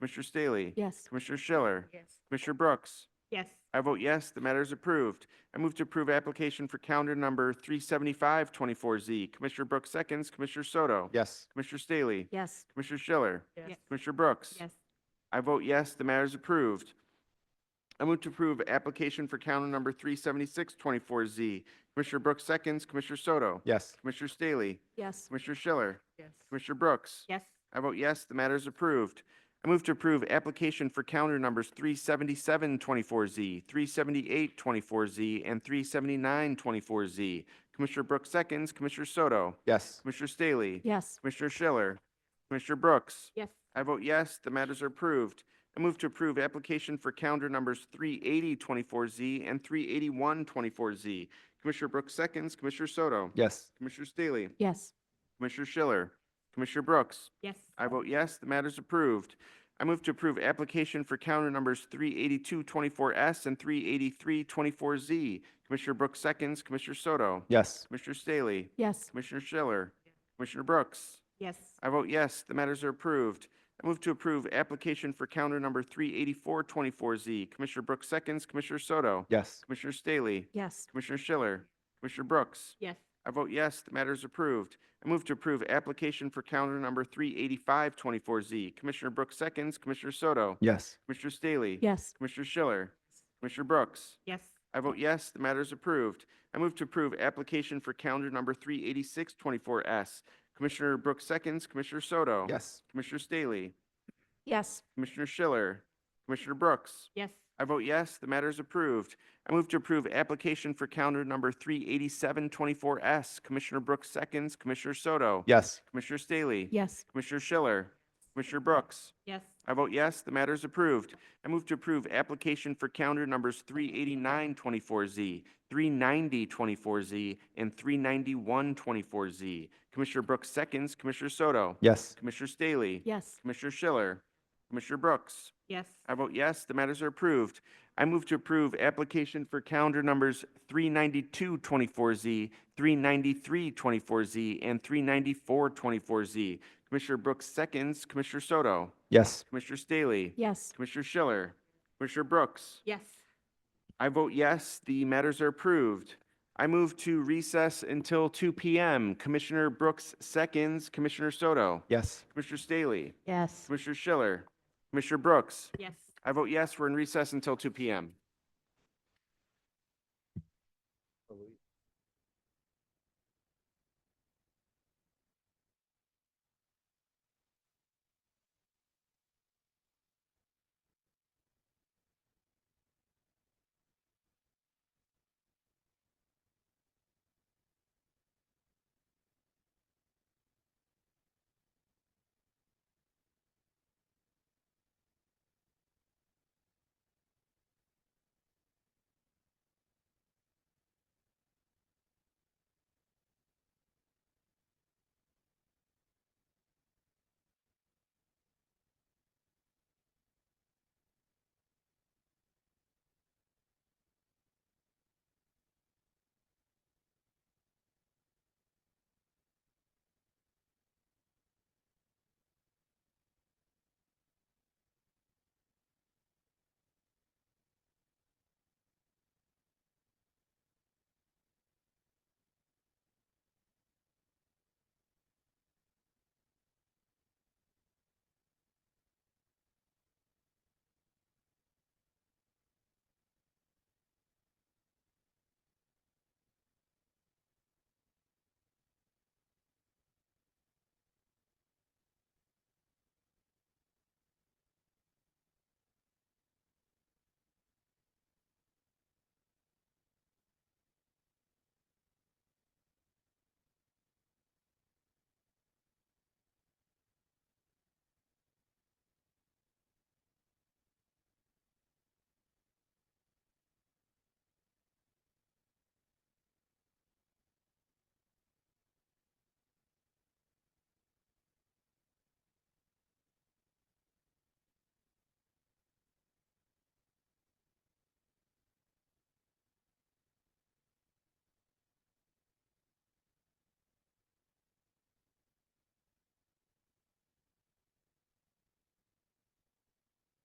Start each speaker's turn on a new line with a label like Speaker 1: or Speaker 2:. Speaker 1: Commissioner Staley?
Speaker 2: Yes.
Speaker 1: Commissioner Schiller?
Speaker 3: Yes.
Speaker 1: Commissioner Brooks?
Speaker 3: Yes.
Speaker 1: I vote yes, the matter is approved. I move to approve application for calendar number 37524Z. Commissioner Brooks seconds, Commissioner Soto?
Speaker 4: yes,
Speaker 1: Commissioner Staley?
Speaker 2: Yes.
Speaker 1: Commissioner Schiller?
Speaker 3: Yes.
Speaker 1: Commissioner Brooks?
Speaker 3: Yes.
Speaker 1: I vote yes, the matter is approved. I move to approve application for counter number 37624Z. Commissioner Brooks seconds, Commissioner Soto.
Speaker 4: yes,
Speaker 1: Commissioner Staley.
Speaker 2: Yes.
Speaker 1: Commissioner Schiller.
Speaker 3: Yes.
Speaker 1: Commissioner Brooks.
Speaker 3: Yes.
Speaker 1: I vote yes, the matter is approved. I move to approve application for counter numbers 37724Z, 37824Z, and 37924Z. Commissioner Brooks seconds, Commissioner Soto.
Speaker 4: yes,
Speaker 1: Commissioner Staley.
Speaker 2: Yes.
Speaker 1: Commissioner Schiller. Commissioner Brooks.
Speaker 3: Yes.
Speaker 1: I vote yes, the matters are approved. I move to approve application for calendar numbers 38024Z and 38124Z. Commissioner Brooks seconds, Commissioner Soto.
Speaker 4: yes,
Speaker 1: Commissioner Staley.
Speaker 2: Yes.
Speaker 1: Commissioner Schiller. Commissioner Brooks.
Speaker 3: Yes.
Speaker 1: I vote yes, the matter is approved. I move to approve application for calendar numbers 38224S and 38324Z. Commissioner Brooks seconds, Commissioner Soto.
Speaker 4: yes,
Speaker 1: Commissioner Staley.
Speaker 2: Yes.
Speaker 1: Commissioner Schiller.
Speaker 3: Yeah.
Speaker 1: Commissioner Brooks.
Speaker 3: Yes.
Speaker 1: I vote yes, the matters are approved. I move to approve application for counter number 38424Z. Commissioner Brooks seconds, Commissioner Soto.
Speaker 4: yes,
Speaker 1: Commissioner Staley.
Speaker 2: Yes.
Speaker 1: Commissioner Schiller. Commissioner Brooks.
Speaker 3: Yes.
Speaker 1: I vote yes, the matter is approved. I move to approve application for counter number 38524Z. Commissioner Brooks seconds, Commissioner Soto.
Speaker 4: yes,
Speaker 1: Commissioner Staley.
Speaker 2: Yes.
Speaker 1: Commissioner Schiller. Commissioner Brooks.
Speaker 3: Yes.
Speaker 1: I vote yes, the matter is approved. I move to approve application for calendar number 38624S. Commissioner Brooks seconds, Commissioner Soto.
Speaker 4: yes,
Speaker 1: Commissioner Staley,
Speaker 2: Yes.
Speaker 1: Commissioner Schiller, Commissioner Brooks.
Speaker 3: Yes.
Speaker 1: I vote yes, the matter is approved. I move to approve application for calendar number 38724S. Commissioner Brooks seconds, Commissioner Soto.
Speaker 4: yes,
Speaker 1: Commissioner Staley.
Speaker 2: Yes.
Speaker 1: Commissioner Schiller, Commissioner Brooks.
Speaker 3: Yes.
Speaker 1: I vote yes, the matter is approved. I move to approve application for calendar numbers 38924Z, 39024Z, and 39124Z. Commissioner Brooks seconds, Commissioner Soto.
Speaker 4: yes,
Speaker 1: Commissioner Staley.
Speaker 2: Yes.
Speaker 1: Commissioner Schiller. Commissioner Brooks.
Speaker 3: Yes.
Speaker 1: I vote yes, the matters are approved. I move to approve application for calendar numbers 39224Z, 39324Z, and 39424Z. Commissioner Brooks seconds, Commissioner Soto.
Speaker 4: yes,
Speaker 1: Commissioner Staley.
Speaker 2: Yes.
Speaker 1: Commissioner Schiller. Commissioner Brooks.
Speaker 3: Yes.
Speaker 1: I vote yes, the matters are approved. I move to recess until 2 PM. Commissioner Brooks seconds, Commissioner Soto.
Speaker 4: yes,
Speaker 1: Commissioner Staley.
Speaker 2: Yes.
Speaker 1: Commissioner Schiller. Commissioner Brooks.
Speaker 3: Yes.
Speaker 1: I vote yes, we're in recess until 2 PM.